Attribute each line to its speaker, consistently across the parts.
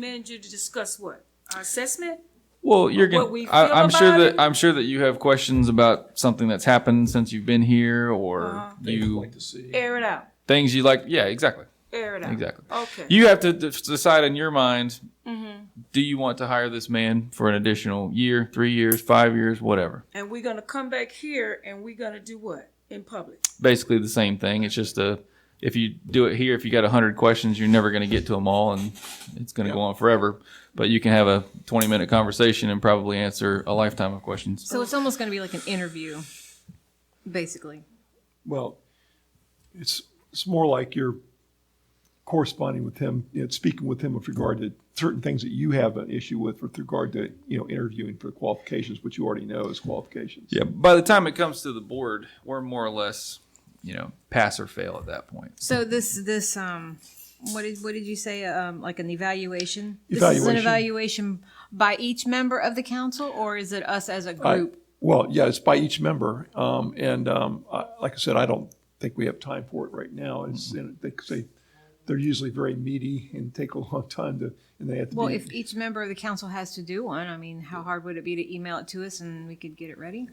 Speaker 1: manager to discuss what? Our assessment?
Speaker 2: Well, you're
Speaker 1: what we
Speaker 2: going. I,
Speaker 1: feel
Speaker 2: I'm sure
Speaker 1: about
Speaker 2: that
Speaker 1: it?
Speaker 2: I'm sure that you have questions about something that's happened since you've been here, or
Speaker 1: Uh-huh.
Speaker 3: Things
Speaker 2: you
Speaker 3: like to see.
Speaker 1: Air it out,
Speaker 2: things you like. Yeah, exactly,
Speaker 1: air it out.
Speaker 2: exactly.
Speaker 1: Okay.
Speaker 2: You have to d- decide in your mind.
Speaker 1: Mm-hmm.
Speaker 2: Do you want to hire this man for an additional year, three years, five years, whatever?
Speaker 1: And we're gonna come back here and we're gonna do what in public?
Speaker 2: Basically the same thing. It's just a. If you do it here, if you got hundred questions, you're never going to get to them all, and it's going to go on forever. But you can have a 20 minute conversation and probably answer a lifetime of questions.
Speaker 4: So it's almost going to be like an interview, basically.
Speaker 3: Well, it's, it's more like you're corresponding with him, you know, speaking with him with regard to certain things that you have an issue with with regard to, you know, interviewing for qualifications, which you already know is qualifications.
Speaker 2: Yeah, by the time it comes to the board, we're more or less, you know, pass or fail at that point.
Speaker 4: So this this um what did what did you say um like an evaluation? This is an
Speaker 3: Evaluation.
Speaker 4: evaluation by each member of the council or is it us as a
Speaker 3: I-
Speaker 4: group?
Speaker 3: Well, yeah, it's by each member. Um, and, um, I, like I said, I don't think we have time for it right now. It's,
Speaker 2: Mm-hmm.
Speaker 3: and they, 'cause they, they're usually very meaty and take a long time to, and they have to
Speaker 4: well,
Speaker 3: be.
Speaker 4: if each member of the council has to do one, I mean, how hard would it be to email it to us and we could get it ready?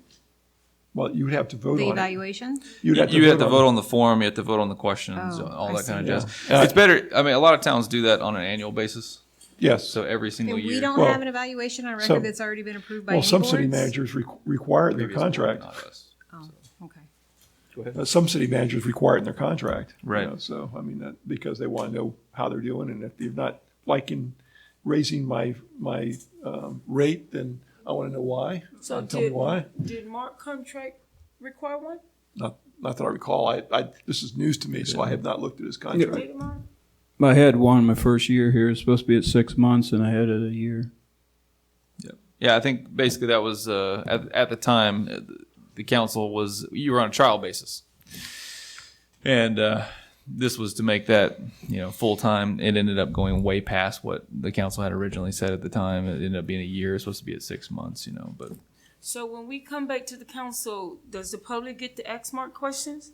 Speaker 3: Well, you would have to vote
Speaker 4: The
Speaker 3: on it.
Speaker 4: evaluation?
Speaker 3: You'd
Speaker 2: You have to
Speaker 3: on
Speaker 2: vote on the form, you have to vote on the questions,
Speaker 4: Oh,
Speaker 2: all
Speaker 4: I
Speaker 2: that kind of
Speaker 4: see.
Speaker 2: jazz.
Speaker 3: Yeah.
Speaker 2: It's better, I mean, a lot of towns do that on an annual basis,
Speaker 3: it. Yes.
Speaker 2: so every
Speaker 4: And
Speaker 2: single
Speaker 4: we
Speaker 2: year.
Speaker 4: don't
Speaker 3: Well,
Speaker 4: have an evaluation on record
Speaker 3: some-
Speaker 4: that's already been approved by
Speaker 3: Well,
Speaker 4: any
Speaker 3: some city
Speaker 4: boards?
Speaker 3: managers requ- require it in their
Speaker 2: Previous board,
Speaker 3: contract.
Speaker 2: not us.
Speaker 4: Oh, okay.
Speaker 3: Uh, Some city managers require it in their contract. you
Speaker 2: Right.
Speaker 3: know, So, I mean, that, because they want to know how they're doing, and if they're not liking raising my, my, um, rate, then I want to know why.
Speaker 1: So
Speaker 3: Tell me
Speaker 1: did,
Speaker 3: why.
Speaker 1: did Mark contract require one?
Speaker 3: Not, not that I recall. I, I, this is news to me, so I have not looked at his contract.
Speaker 1: Did Mark?
Speaker 5: I had one my first year here. It's supposed to be at six months, and I had it a year.
Speaker 2: Yeah, I think basically that was, uh, at, at the time, uh, the council was, you were on a trial basis. And, uh, this was to make that, you know, full-time. It ended up going way past what the council had originally said at the time. It ended up being a year, it's supposed to be at six months, you know, but
Speaker 1: So when we come back to the council, does the public get to ask Mark questions?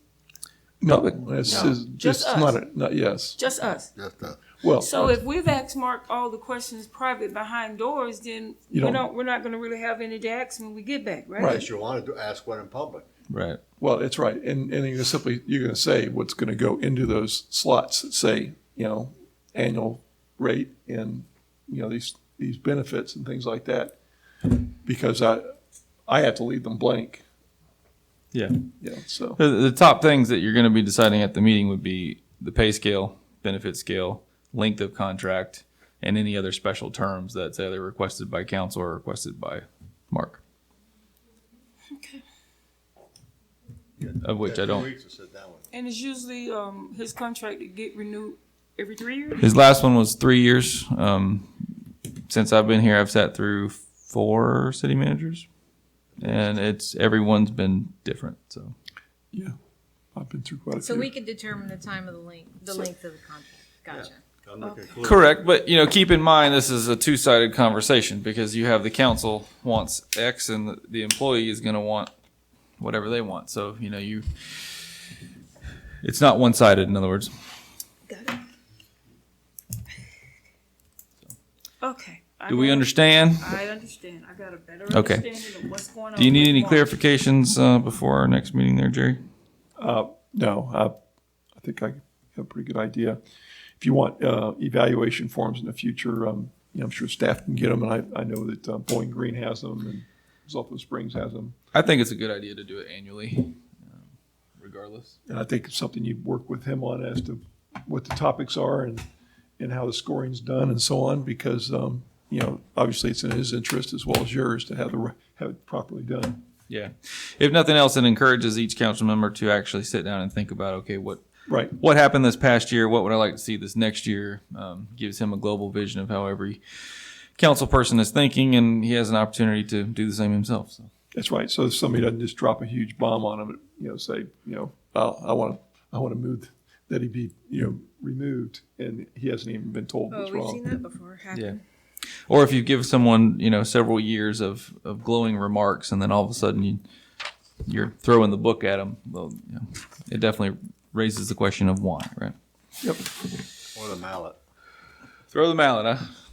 Speaker 3: No, this is, this
Speaker 1: just
Speaker 3: is
Speaker 1: us.
Speaker 3: not, a- not, yes.
Speaker 1: Just us?
Speaker 6: Just that.
Speaker 3: Well,
Speaker 1: So if we've asked Mark all the questions private behind doors, then we
Speaker 3: You don't-
Speaker 1: don't, we're not gonna really have any to ask when we get back, right?
Speaker 6: Unless you wanted to ask one in public.
Speaker 2: Right.
Speaker 3: Well, that's right, and and you're simply you're going to say what's going to go into those slots that say you know annual rate and you know these these benefits and things like that, because I I have to leave them blank.
Speaker 2: Yeah.
Speaker 3: You know, so
Speaker 2: The, the top things that you're going to be deciding at the meeting would be the pay scale, benefit scale, length of contract, and any other special terms that's either requested by council or requested by Mark. Of which I
Speaker 6: Two
Speaker 2: don't.
Speaker 6: weeks to sit down with.
Speaker 1: And it's usually, um, his contract to get renewed every three years?
Speaker 2: His last one was three years. Um, since I've been here, I've sat through four city managers, and it's everyone's been different. So
Speaker 3: yeah, I've been through quite a
Speaker 4: So
Speaker 3: few.
Speaker 4: we could determine the time of the length, the length of the contract. Gotcha.
Speaker 6: I'm not concluding.
Speaker 2: Correct, but you know, keep in mind this is a two-sided conversation because you have the council wants X and the, the employee is going to want whatever they want. So you know, you it's not one-sided. In other words,
Speaker 1: Okay. I
Speaker 2: do we
Speaker 1: got-
Speaker 2: understand?
Speaker 1: I understand. I got a better
Speaker 2: Okay.
Speaker 1: understanding of what's going on.
Speaker 2: Do you need
Speaker 1: with
Speaker 2: any
Speaker 1: Mark.
Speaker 2: clarifications uh, before our next meeting, there, Jerry?
Speaker 3: No, I I think I have a pretty good idea. If you want uh, evaluation forms in the future, um, you know, I'm sure staff can get them, and I I know that uh, Bowling Green has them and Zolfo Springs has them.
Speaker 2: I think it's a good idea to do it annually, um, regardless.
Speaker 3: And I think it's something you work with him on as to what the topics are and, and how the scoring's done and so on, because, um, you know, obviously it's in his interest as well as yours to have the, ri- have it properly done.
Speaker 2: Yeah. If nothing else, it encourages each council member to actually sit down and think about okay, what
Speaker 3: Right,
Speaker 2: what happened this past year, what would I like to see this next year, um, gives him a global vision of how every council person is thinking, and he has an opportunity to do the same himself. So.
Speaker 3: that's right. So if somebody doesn't just drop a huge bomb on him, you know, say, you know, I, I want to, I want to move, that he be, you know, removed, and he hasn't even been told what's
Speaker 4: Oh, we've seen
Speaker 3: wrong.
Speaker 4: that before happen.
Speaker 2: Yeah. Or if you give someone, you know, several years of, of glowing remarks, and then all of a sudden you, you're throwing the book at them, well, you know, it definitely raises the question of why, right?
Speaker 3: Yep,
Speaker 6: Or the mallet.
Speaker 2: Throw the mallet, huh?